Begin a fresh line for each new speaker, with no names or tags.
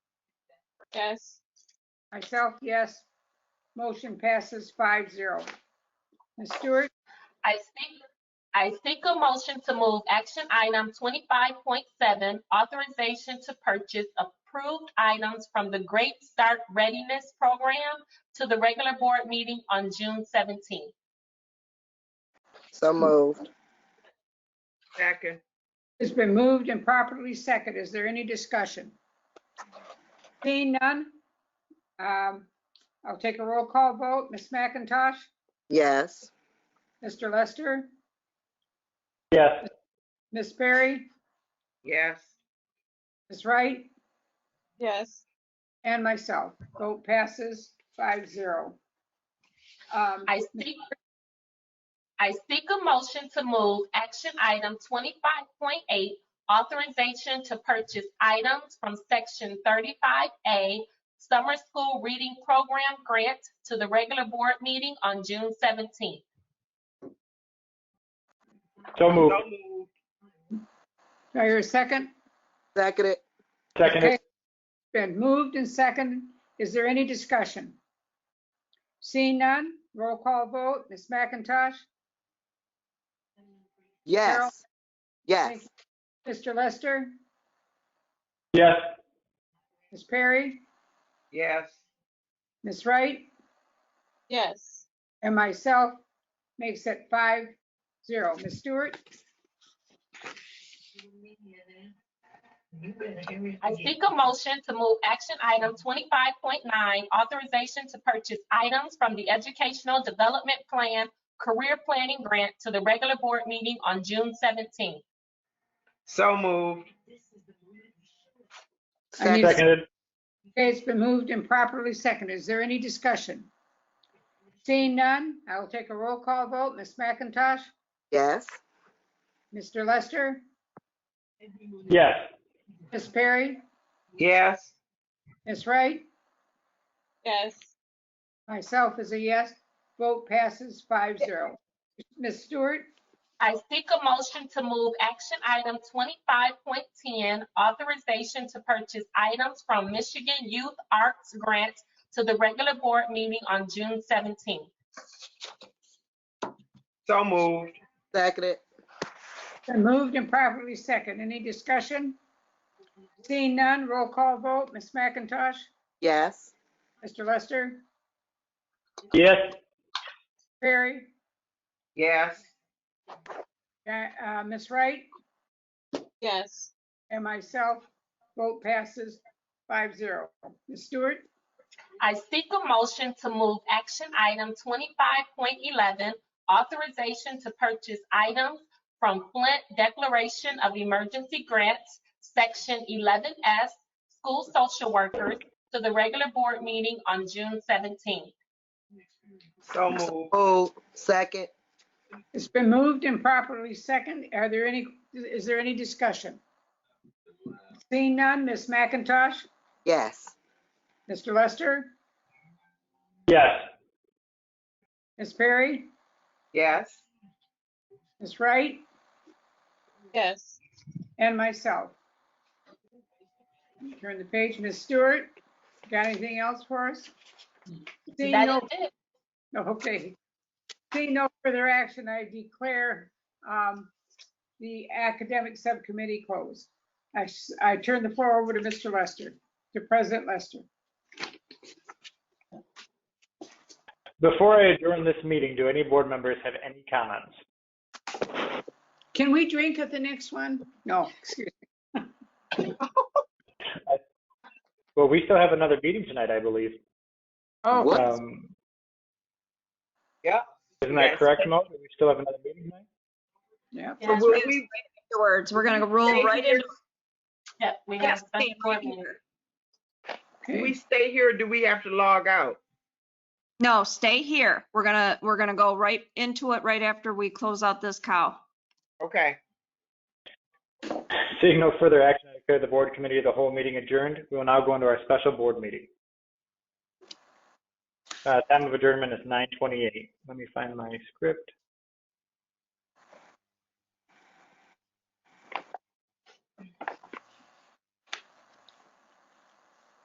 Yes.
Myself, yes. Motion passes five zero. Ms. Stewart,
I seek, I seek a motion to move action item twenty-five point seven, authorization to purchase approved items from the Great Start Readiness Program to the regular board meeting on June seventeenth.
So moved.
Second.
it's been moved and properly second. Is there any discussion? Seeing none, um, I'll take a roll call vote. Ms. McIntosh,
Yes.
Mr. Lester,
yes,
Ms. Berry,
Yes.
Ms. Wright,
yes,
and myself. Vote passes five zero. Um,
I seek, I seek a motion to move action item twenty-five point eight, authorization to purchase items from section thirty-five A, Summer School Reading Program Grant to the regular board meeting on June seventeenth.
so
So
moved,
moved.
Do I hear a second?
Seconded.
seconded,
Okay. Been moved and seconded. Is there any discussion? Seeing none, roll call vote. Ms. McIntosh,
Yes. Yes.
Mr. Lester,
yes,
Ms. Perry,
Yes.
Ms. Wright,
yes.
and myself makes it five zero. Ms. Stewart,
I seek a motion to move action item twenty-five point nine, authorization to purchase items from the Educational Development Plan Career Planning Grant to the regular board meeting on June seventeenth.
So moved.
I need-
Seconded.
seconded,
okay, it's been moved and properly seconded. Is there any discussion? Seeing none, I will take a roll call vote. Ms. McIntosh,
Yes.
Mr. Lester,
yes,
Ms. Perry,
Yes.
Ms. Wright,
Yes.
Myself is a yes. Vote passes five zero. Ms. Stewart,
I seek a motion to move action item twenty-five point ten, authorization to purchase items from Michigan Youth Arts Grant to the regular board meeting on June seventeenth.
So moved.
Seconded.
been moved and properly second. Any discussion? Seeing none, roll call vote. Ms. McIntosh,
Yes.
Mr. Lester,
yes,
Perry,
Yes.
uh, uh, Ms. Wright,
Yes.
and myself. Vote passes five zero. Ms. Stewart,
I seek a motion to move action item twenty-five point eleven, authorization to purchase items from Flint Declaration of Emergency Grants, Section eleven S, School Social Workers, to the regular board meeting on June seventeenth.
So moved.
Oh, second.
it's been moved and properly second. Are there any, is there any discussion? Seeing none, Ms. McIntosh,
Yes.
Mr. Lester,
yes,
Ms. Perry,
Yes.
Ms. Wright,
Yes.
and myself. Turn the page, Ms. Stewart, got anything else for us? Seeing
That
no,
is it.
okay. Seeing no further action, I declare um, the academic subcommittee closed. I s- I turn the floor over to Mr. Lester, to President Lester.
before I adjourn this meeting, do any board members have any comments?
Can we drink at the next one? No, excuse me.
Well, we still have another meeting tonight, I believe,
Oh,
What?
um,
Yep.
isn't that
Yes.
correct, Mo? Do We still have another meeting tonight?
yeah.
So we'll be afterwards. We're gonna roll
Stay
right
here.
into.
Yep, we
yeah,
have
stay
special
right
board meeting.
here.
Do we
okay.
stay here or do we have to log out?
No, stay here. We're gonna, we're gonna go right into it right after we close out this cow.
Okay.
Seeing no further action, I declare the board committee of the whole meeting adjourned. We will now go into our special board meeting. Uh, time of adjournment is nine twenty-eight. Let me find my script.